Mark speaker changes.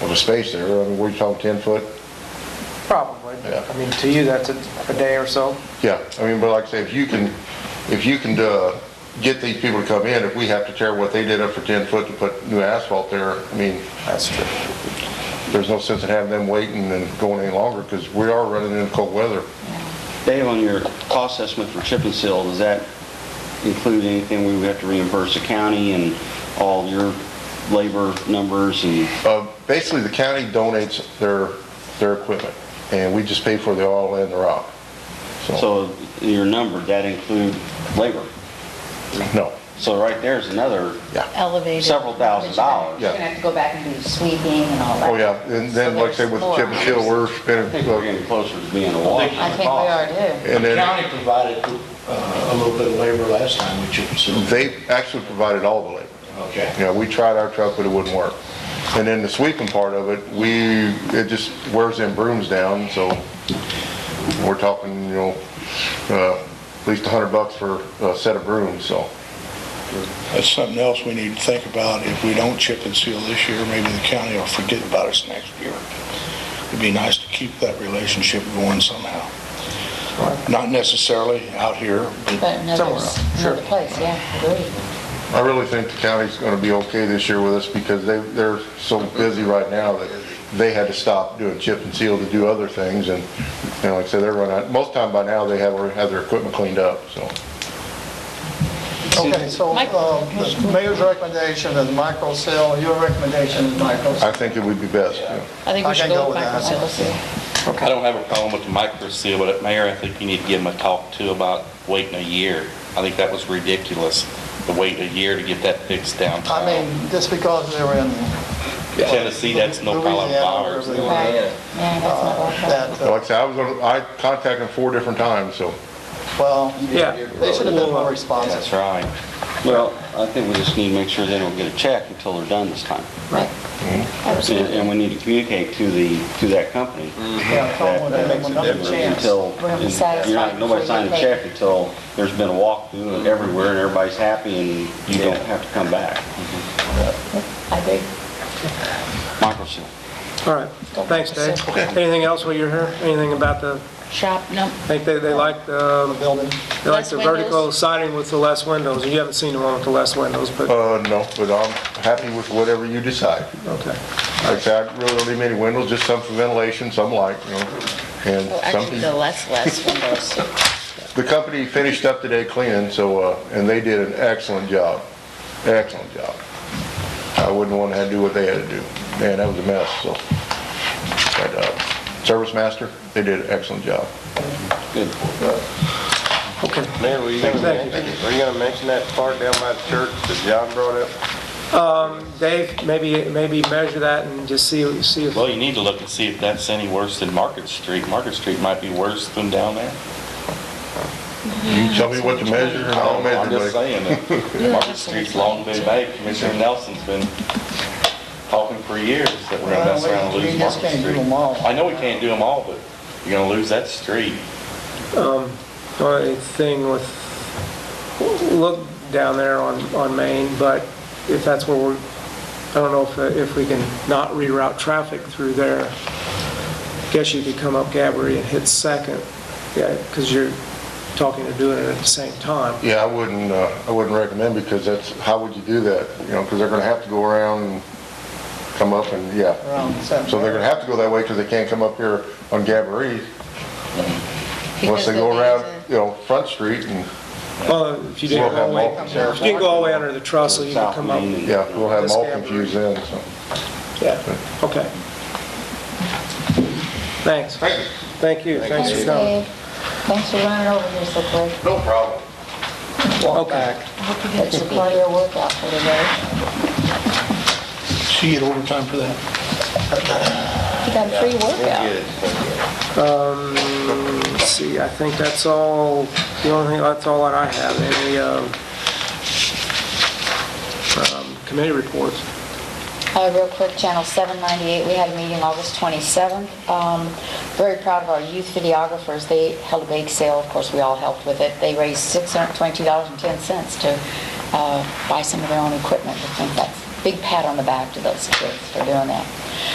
Speaker 1: Well, the space there, I mean, we talking ten foot?
Speaker 2: Probably.
Speaker 1: Yeah.
Speaker 2: I mean, to you, that's a, a day or so.
Speaker 1: Yeah, I mean, but like I say, if you can, if you can, uh, get these people to come in, if we have to tear what they did up for ten foot to put new asphalt there, I mean,
Speaker 2: That's true.
Speaker 1: there's no sense in having them waiting and going any longer, because we are running into cold weather.
Speaker 3: Dave, on your cost estimate for chip and seal, does that include anything we would have to reimburse the county and all your labor numbers and,
Speaker 1: Uh, Basically, the county donates their, their equipment, and we just pay for the oil and the rock. So,
Speaker 3: so your number, that include labor?
Speaker 1: no,
Speaker 3: So right there's another,
Speaker 1: yeah.
Speaker 4: elevated.
Speaker 3: Several thousand dollars.
Speaker 4: You're gonna have to go back and do sweeping and all that.
Speaker 1: Oh, yeah, and then, like I said, with the chip and seal, we're
Speaker 3: I think we're
Speaker 1: spending, uh,
Speaker 3: getting closer to being a wash.
Speaker 4: I think we are too.
Speaker 1: and
Speaker 5: The
Speaker 1: then
Speaker 5: county provided uh, a little bit of labor last time with chip and seal.
Speaker 1: they actually provided all the labor.
Speaker 5: Okay.
Speaker 1: You know, we tried our truck, but it wouldn't work. And then the sweeping part of it, we, it just wears them brooms down, so we're talking, you know, uh, at least a hundred bucks for a set of brooms, so.
Speaker 6: That's something else we need to think about. If we don't chip and seal this year, maybe the county will forget about us next year. It'd be nice to keep that relationship going somehow. Not necessarily out here, but
Speaker 4: But another,
Speaker 2: Somewhere else, sure.
Speaker 4: another place, yeah, agree.
Speaker 1: I really think the county's gonna be okay this year with us because they, they're so busy right now that they had to stop doing chip and seal to do other things and, you know, like I said, they're running out. Most time by now, they have, already have their equipment cleaned up, so.
Speaker 7: Okay, so uh, the mayor's recommendation is micro sale, your recommendation is micro
Speaker 1: I
Speaker 7: sale.
Speaker 1: think it would be best, you know.
Speaker 8: I think
Speaker 7: I
Speaker 8: we should
Speaker 7: can
Speaker 8: go
Speaker 7: go
Speaker 8: with
Speaker 7: with that.
Speaker 8: microcell.
Speaker 9: I don't have a problem with the micro seal, but Mayor, I think you need to give them a talk too about waiting a year. I think that was ridiculous, to wait a year to get that fixed
Speaker 7: I
Speaker 9: downtown.
Speaker 7: mean, just because they were in
Speaker 9: Tennessee, that's no problem of
Speaker 7: Louisiana,
Speaker 9: ours.
Speaker 7: wherever they were,
Speaker 4: Right. Yeah, that's not our fault.
Speaker 7: that,
Speaker 1: But
Speaker 7: uh,
Speaker 1: Like I said, I was on, I contacted them four different times, so.
Speaker 7: well,
Speaker 2: Yeah.
Speaker 7: they should have been more responsive.
Speaker 9: That's right.
Speaker 3: Well, I think we just need to make sure they don't get a check until they're done this time.
Speaker 4: Right.
Speaker 3: And
Speaker 4: Absolutely.
Speaker 3: and we need to communicate to the, to that company.
Speaker 7: Yeah,
Speaker 3: that-
Speaker 7: someone
Speaker 3: that
Speaker 7: gave them another
Speaker 3: that
Speaker 7: chance.
Speaker 3: Until,
Speaker 4: We're gonna be satisfied
Speaker 3: you're not, nobody
Speaker 4: before we
Speaker 3: signed a
Speaker 4: pay.
Speaker 3: check until there's been a walkthrough and everywhere and everybody's happy and you don't have to come back.
Speaker 4: I agree.
Speaker 3: Microsoft.
Speaker 2: All right. Thanks, Dave. Anything else while you're here? Anything about the,
Speaker 4: Shop, no,
Speaker 2: I think they, they like the, um,
Speaker 7: Building,
Speaker 2: they like the
Speaker 4: Less windows?
Speaker 2: vertical siding with the less windows. You haven't seen the one with the less windows,
Speaker 10: Oh.
Speaker 2: but,
Speaker 1: Uh, no, but I'm happy with whatever you decide.
Speaker 2: okay.
Speaker 1: Like I said, I really don't need many windows, just some for ventilation, some light, you know, and
Speaker 4: Oh,
Speaker 8: Well, actually, the
Speaker 1: some.
Speaker 8: less, less windows.
Speaker 1: The company finished up today cleaning, so, uh, and they did an excellent job, excellent job. I wouldn't want to have to do what they had to do. Man, that was a mess, so. But, uh, Service Master, they did an excellent job.
Speaker 10: Mayor, were you gonna mention, were you gonna mention that part down by the church that John brought up?
Speaker 2: Um, Dave, maybe, maybe measure that and just see, see if,
Speaker 9: Well, you need to look and see if that's any worse than Market Street. Market Street might be worse than down there.
Speaker 1: You tell me what to measure and I'll
Speaker 9: I'm
Speaker 1: measure,
Speaker 9: just
Speaker 1: buddy.
Speaker 9: saying that Market Street's long been bad. Commissioner Nelson's been talking for years that we're gonna mess around
Speaker 7: Well,
Speaker 9: and
Speaker 7: we- we
Speaker 9: lose
Speaker 7: just
Speaker 9: Market
Speaker 7: can't do them
Speaker 9: Street.
Speaker 7: all.
Speaker 9: I know we can't do them all, but you're gonna lose that street.
Speaker 2: or anything with, look down there on, on Main, but if that's where we're, I don't know if, uh, if we can not reroute traffic through there. Guess you could come up Gabri and hit Second, yeah, because you're talking to doing it at the same time.
Speaker 1: Yeah, I wouldn't, uh, I wouldn't recommend because that's, how would you do that? You know, because they're going to have to go around and come up and, yeah.
Speaker 7: around seven.
Speaker 1: So they're gonna have to go that way because they can't come up here on Gabourey
Speaker 8: Because
Speaker 1: unless they go
Speaker 8: they'll
Speaker 1: around,
Speaker 8: use
Speaker 1: you know, Front Street and,
Speaker 2: Well, if you
Speaker 1: Well,
Speaker 2: didn't go all the way,
Speaker 1: that
Speaker 2: if you didn't go all the way under the trussel, you could
Speaker 3: South
Speaker 2: come up.
Speaker 3: Main and-
Speaker 1: yeah, we'll have them all
Speaker 2: This Gabourey.
Speaker 1: confused then, so.
Speaker 2: Yeah, okay. Thanks. Thank you, thanks
Speaker 4: thanks,
Speaker 2: for coming.
Speaker 4: Dave. Thanks for running over here so quick.
Speaker 1: No problem.
Speaker 7: Walk
Speaker 2: Okay.
Speaker 7: back.
Speaker 4: I hope you get your part of your workout for today.
Speaker 6: she get overtime for that.
Speaker 4: You got a free workout.
Speaker 2: Let's see, I think that's all, the only thing, that's all that I have, any, um, um, committee reports.
Speaker 4: Uh, Real quick, Channel 798, we had a meeting August 27th. Um, Very proud of our youth videographers. They held a bake sale, of course, we all helped with it. They raised $622.10 to uh, buy some of their own equipment. I think that's a big pat on the back to those kids for doing that.